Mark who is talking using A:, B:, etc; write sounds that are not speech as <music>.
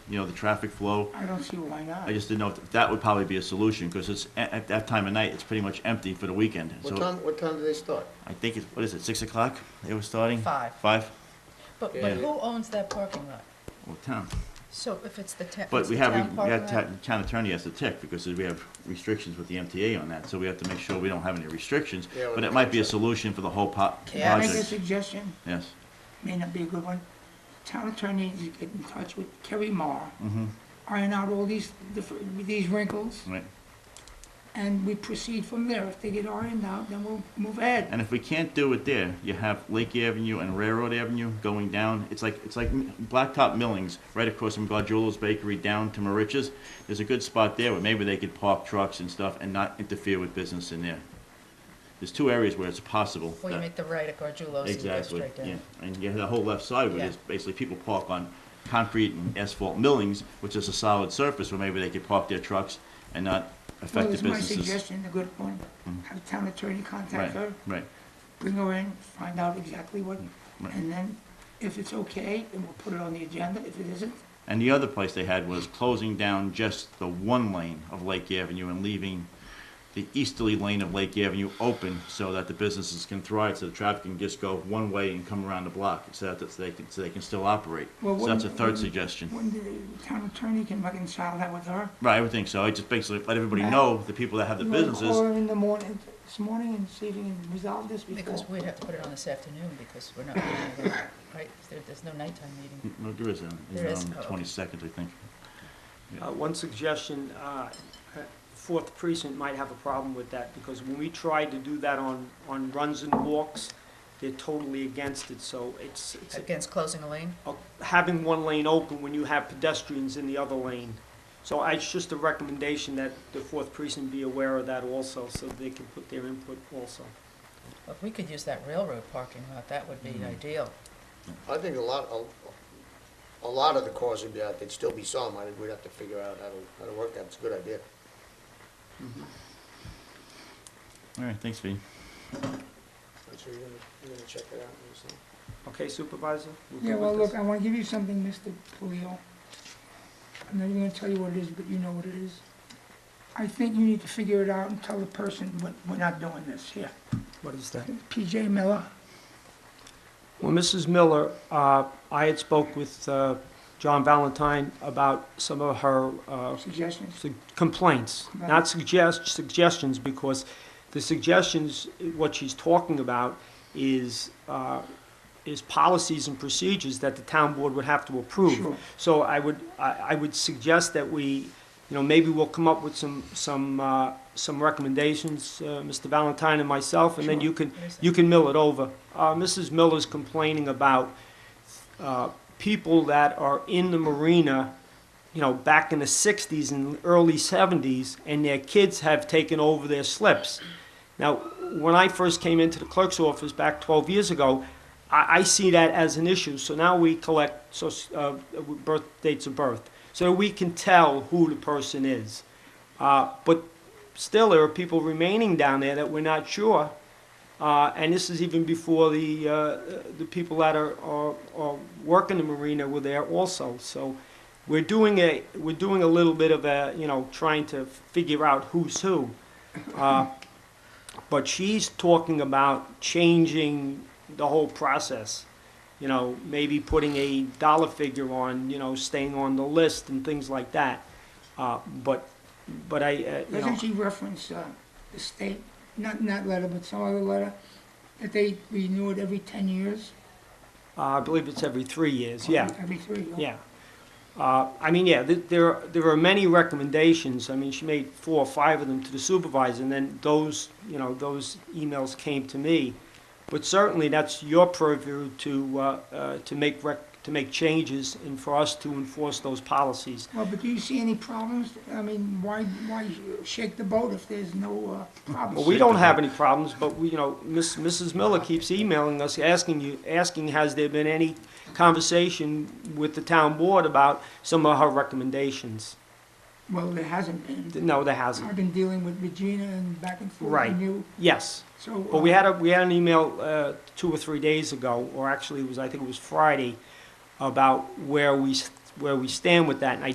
A: you know, the traffic flow.
B: I don't see why not.
A: I just didn't know if that would probably be a solution, because it's, at, at that time of night, it's pretty much empty for the weekend.
C: What
A: So
C: time, what time do they start?
A: I think it's, what is it, six o'clock they were starting?
D: Five.
A: Five?
D: But,
C: Yeah.
D: but who owns that parking lot?
A: Well, town.
D: So if it's the town,
A: But
D: it's
A: we
D: the
A: have,
D: town
A: we
D: parking
A: have,
D: lot?
A: ta- town attorney has to tick, because we have restrictions with the MTA on that, so we have to make sure we don't have any restrictions.
C: Yeah, with
A: But
C: the
A: it might be a
C: contract.
A: solution for the whole po-
B: Can I make a
A: project.
B: suggestion?
A: Yes.
B: May not be a good one. Town attorney needs to get in touch with Kerry Marr,
A: Mm-hmm.
B: iron out all these, differ- these wrinkles,
A: Right.
B: and we proceed from there. If they get ironed out, then we'll move ahead.
A: And if we can't do it there, you have Lake Avenue and Railroad Avenue going down. It's like, it's like Blacktop Millings, right across from Gardula's Bakery down to Marich's. There's a good spot there where maybe they could park trucks and stuff and not interfere with business in there. There's two areas where it's possible.
D: Well, you
A: that-
D: make the right at Gargiulos and you go
A: uh, Exactly,
D: straight down.
A: yeah. And you have the whole left side where
D: Yeah.
A: there's basically people park on concrete and asphalt millings, which is a solid surface where maybe they could park their trucks and not
B: Well,
A: affect the
B: it's my
A: businesses. Mm-hmm.
B: suggestion, a good one. Have town attorney contact
A: Right,
B: her,
A: right.
B: bring her in, find out exactly what,
A: Mm-hmm. Right.
B: and then if it's okay, then we'll put it on the agenda. If it isn't,
A: And the other place they had was closing down just the one lane of Lake Avenue and leaving the easterly lane of Lake Avenue open so that the businesses can thrive, so the traffic can just go one way and come around the block, so that that's- they can, so they can still operate.
B: Well,
A: So that's a
B: wouldn't-
A: third
B: wouldn't-
A: suggestion.
B: when the town attorney can reconcile that with her.
A: Right, I would think so. I just basically let everybody
B: Matt?
A: know, the people that have the
B: You wanna Call
A: businesses,
B: her in the morning, this morning and see if you can resolve this before.
D: Because we'd have to put it on this afternoon because we're not, meeting at all, right? There, there's no nighttime meeting.
A: no, there is, um,
D: There is,
A: on
D: oh,
A: the
D: okay.
A: twenty-second, I think.
E: Uh, One suggestion, uh, Fourth Precinct might have a problem with that, because when we tried to do that on, on runs and walks, they're totally against it, so it's,
A: Mm.
E: it's
D: Against closing a lane?
E: uh, having one lane open when you have pedestrians in the other lane. So I- it's just a recommendation that the Fourth Precinct be aware of that also, so they can put their input also.
D: Well, If we could use that railroad parking lot, that would be
A: Mm-hmm.
D: ideal.
C: I think a lot, a, a lot of the cars would be out, there'd still be some, I think we'd have to figure out how to, how to work that, it's a good idea.
A: All right, thanks, Vee.
C: I'm sure you're gonna, you're gonna check it out and see.
E: Okay, Supervisor? You good
B: Yeah,
E: with
B: well,
E: this?
B: look, I wanna give you something, Mr. Polio. I'm not even gonna tell you what it is, but you know what it is. I think you need to figure it out and tell the person, we're, we're not doing this here.
E: What is that?
B: PJ Miller,
E: Well, Mrs. Miller, uh, I had spoke with uh, John Valentine about some of her uh,
B: suggestions.
E: su- complaints,
B: Right.
E: not suggest, suggestions, because the suggestions, what she's talking about is, uh, is policies and procedures that the town board would have to
B: Sure.
E: approve. So I would, I, I would suggest that we, you know, maybe we'll come up with some, some, uh, some recommendations, uh, Mr. Valentine and myself, and then
B: Sure.
E: you can,
D: What is that?
E: you can mill it over. Uh, Mrs. Miller's complaining about, uh, people that are in the marina, you know, back in the sixties and early seventies, and their kids have taken over their slips. Now, when I first came into the clerk's office back twelve years ago, I, I see that as an issue, so now we collect, so, uh, birth, dates of birth, so we can tell who the person is. Uh, but still, there are people remaining down there that we're not sure. Uh, and this is even before the, uh, the people that are, are, are working the marina were there also. So we're doing a, we're doing a little bit of a, you know, trying to figure out who's <laughs> who. Uh, but she's talking about changing the whole process. You know, maybe putting a dollar figure on, you know, staying on the list and things like that. Uh, but, but I, uh, you know.
B: Doesn't she reference, uh, the state, not in that letter, but some other letter, that they renew it every ten years?
E: Uh, I believe it's every three years, yeah,
B: Every three, years.
E: yeah. Uh, I mean, yeah, th- there, there are many recommendations, I mean, she made four or five of them to the supervisor, and then those, you know, those emails came to me. But certainly, that's your purview to, uh, uh, to make rec, to make changes and for us to enforce those policies.
B: Well, but do you see any problems? I mean, why, why shake the boat if there's no, uh, problems?
E: Well, we don't have any problems, but we, you know, Miss, Mrs. Miller keeps emailing us, asking you, asking, has there been any conversation with the town board about some of her recommendations?
B: Well, there hasn't been.
E: No, there
B: I've
E: hasn't.
B: been dealing with Regina and back and forth.
E: Right.
B: And you,
E: Yes,
B: so.
E: but we had a, we had an email uh, two or three days ago, or actually it was, I think it was Friday, about where we s- where we stand with that, and I